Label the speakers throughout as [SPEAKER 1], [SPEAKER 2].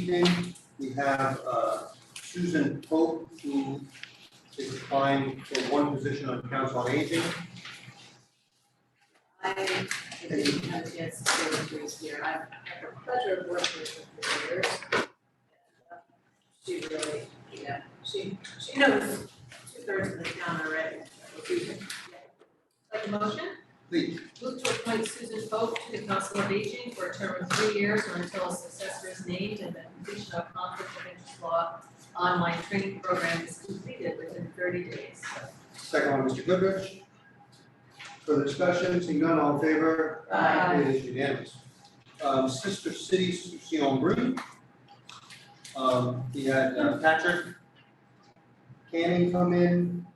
[SPEAKER 1] evening. We have uh, Susan Pope, who is applying for one position on Council on Aging.
[SPEAKER 2] I didn't have a chance to go through this year. I've had the pleasure of working with her for years. She really, you know, she, she knows two thirds of the town already.
[SPEAKER 3] Like a motion,
[SPEAKER 1] Please,
[SPEAKER 3] move to appoint Susan Pope to the Council of Aging for a term of three years or until a successor is named and the completion of conflict of interest law online training program is completed within thirty days.
[SPEAKER 1] second one, Mr. Goodrich. Further discussion, seeing none, all in favor?
[SPEAKER 3] Aye.
[SPEAKER 1] It is unanimous. Um, Sister City, Sion Brew. Um, we had uh, Patrick Canning come in.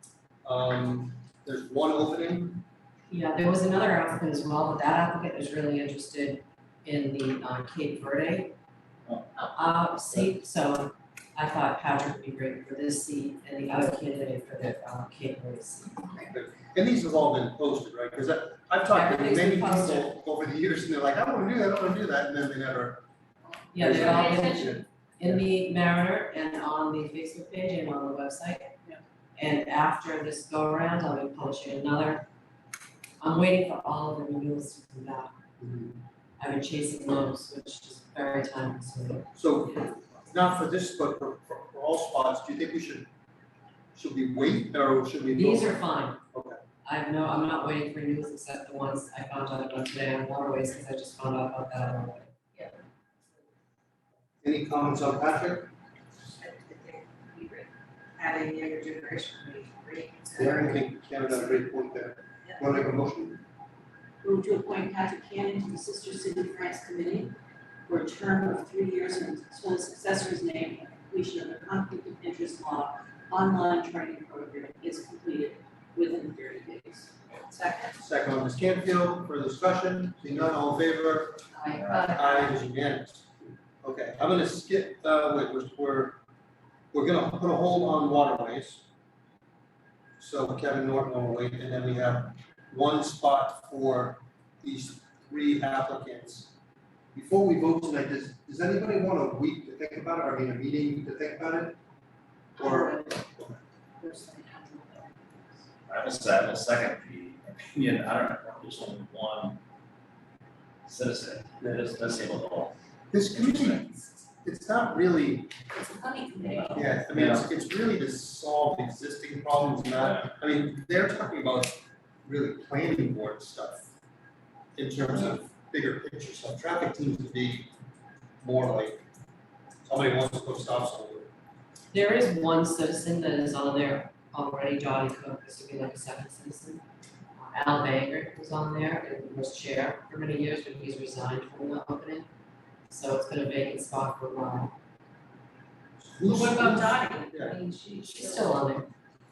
[SPEAKER 1] Um, there's one opening.
[SPEAKER 4] Yeah, there was another applicant as well, but that applicant is really interested in the uh, Cape Verde
[SPEAKER 1] Oh.
[SPEAKER 4] uh, seat, so I thought Patrick would be great for this seat and the other candidate for the uh, Cape Verde seat.
[SPEAKER 1] And these have all been posted, right? Because I've talked to
[SPEAKER 4] Everything's
[SPEAKER 1] many
[SPEAKER 4] been posted.
[SPEAKER 1] people over the years and they're like, I wanna do that, I wanna do that, and then they never.
[SPEAKER 4] Yeah, they're all
[SPEAKER 3] Pay
[SPEAKER 4] in,
[SPEAKER 3] attention.
[SPEAKER 4] in the Mariner and on the Facebook page and on the website.
[SPEAKER 3] Yeah.
[SPEAKER 4] And after this go around, I'll be posting another. I'm waiting for all of the renewals to come back. I've been chasing those, which is very time consuming.
[SPEAKER 1] So not for this, but for, for, for all spots, do you think we should, should we wait or should we? go-
[SPEAKER 4] These are fine.
[SPEAKER 1] Okay.
[SPEAKER 4] I have no, I'm not waiting for news except the ones I found out about today on waterways, because I just found out about that on the way.
[SPEAKER 1] Any comments on Patrick?
[SPEAKER 2] Having a younger generation would be great.
[SPEAKER 1] Yeah, I think Karen had a great point there. Want to make a motion?
[SPEAKER 2] Move to appoint Patrick Cannon to the Sister City France Committee for a term of three years until a successor is named and completion of the conflict of interest law online training program is completed within thirty days. Second.
[SPEAKER 1] Second one, Ms. Canfield, further discussion, seeing none, all in favor?
[SPEAKER 2] uh,
[SPEAKER 1] Aye, it is unanimous. Okay, I'm gonna skip, uh, wait, we're, we're, we're gonna put a hold on waterways. So Kevin Norton will wait, and then we have one spot for these three applicants. Before we vote tonight, does, does anybody want a week to think about it, or I mean, a meeting to think about it? Or,
[SPEAKER 5] I was, I will second the opinion, I don't know, there's only one citizen that is disabled at all.
[SPEAKER 1] this committee, it's not really
[SPEAKER 2] It's a funny committee.
[SPEAKER 5] Uh,
[SPEAKER 1] Yeah, I mean, it's, it's really to solve existing problems, not, I mean, they're talking about really planning board stuff in terms of bigger picture stuff. Traffic seems to be more like somebody wants to put stops on it.
[SPEAKER 4] There is one citizen that is on there already, Dottie Cook, this would be like a second citizen. Uh, Al Banger was on there and was chair for many years, but he's resigned from the opening. So it's been a vacant spot for a while.
[SPEAKER 1] Who's,
[SPEAKER 2] What about Dottie?
[SPEAKER 1] Yeah.
[SPEAKER 2] I mean, she,
[SPEAKER 4] She's still on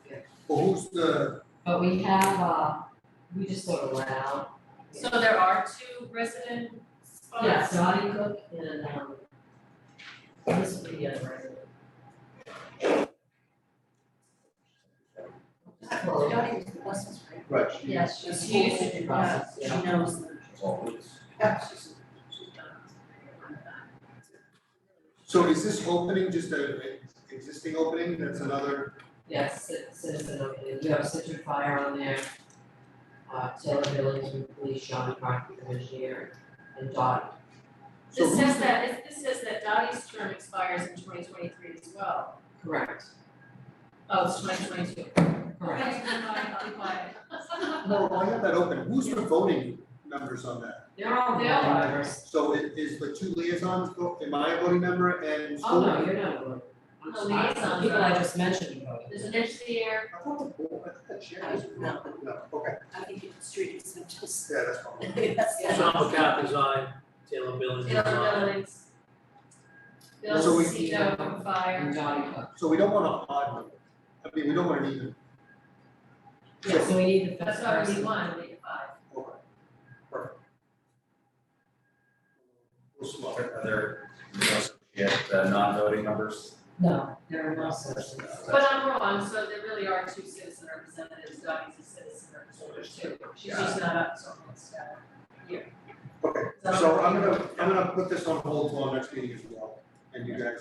[SPEAKER 4] there.
[SPEAKER 1] well, who's the,
[SPEAKER 4] But we have, uh, we just sort of went out.
[SPEAKER 3] So there are two resident
[SPEAKER 4] Yeah,
[SPEAKER 3] spots.
[SPEAKER 4] Dottie Cook and, um, this would be the other resident.
[SPEAKER 2] Dottie is the buses, right?
[SPEAKER 1] right, she-
[SPEAKER 3] Yes,
[SPEAKER 2] She's
[SPEAKER 3] she used to
[SPEAKER 2] she
[SPEAKER 3] do
[SPEAKER 2] knows,
[SPEAKER 3] that.
[SPEAKER 2] she knows them. Yeah, she's, she's done.
[SPEAKER 1] so is this opening just a, a existing opening, that's another,
[SPEAKER 4] Yes, ci- citizen of, you have Citrus Fire on there. Uh, Taylor Billings, with police, Sean McCarthy, engineer, and Dot.
[SPEAKER 1] so
[SPEAKER 3] This
[SPEAKER 1] who's
[SPEAKER 3] says
[SPEAKER 1] the-
[SPEAKER 3] that, this- this says that Dottie's term expires in twenty twenty-three as well.
[SPEAKER 4] Correct.
[SPEAKER 3] Oh, it's twenty twenty-two.
[SPEAKER 4] Correct.
[SPEAKER 1] no, I have that open, who's the voting members on that?
[SPEAKER 4] They're all
[SPEAKER 3] They all are.
[SPEAKER 4] members.
[SPEAKER 1] So it is the two liaisons, vote- am I a voting member and
[SPEAKER 4] Oh,
[SPEAKER 1] school?
[SPEAKER 4] no, you're not a voter. I'm
[SPEAKER 3] No,
[SPEAKER 4] just- I-
[SPEAKER 3] liaisons
[SPEAKER 4] People I
[SPEAKER 3] are.
[SPEAKER 4] just mentioned voted.
[SPEAKER 3] There's an engineer,
[SPEAKER 1] I thought the board, I thought the chair was.
[SPEAKER 2] No.
[SPEAKER 1] okay,
[SPEAKER 2] I think it's street, it's just.
[SPEAKER 1] yeah, that's fine.
[SPEAKER 2] Yes.
[SPEAKER 6] Sean McCaffrey's on, Taylor Billings is
[SPEAKER 3] Bill
[SPEAKER 6] on.
[SPEAKER 3] Billings. Bill
[SPEAKER 1] So we-
[SPEAKER 3] Cito from
[SPEAKER 4] And
[SPEAKER 3] Fire.
[SPEAKER 4] Dottie Cook.
[SPEAKER 1] So we don't want an odd number, I mean, we don't want an even,
[SPEAKER 4] Yeah, so we need the
[SPEAKER 3] That's
[SPEAKER 4] fifth
[SPEAKER 3] why we
[SPEAKER 4] person.
[SPEAKER 3] need one, we need five.
[SPEAKER 1] okay, perfect. We'll slow it.
[SPEAKER 5] Are there, you know, yet, uh, non-voting members?
[SPEAKER 4] No, there are no such.
[SPEAKER 3] But I'm wrong, so there really are two citizen representatives, Dottie's a citizen representative too. She's just not up to almost, uh, year.
[SPEAKER 1] Okay, so I'm gonna, I'm gonna put this on hold till our next meeting as well. and you guys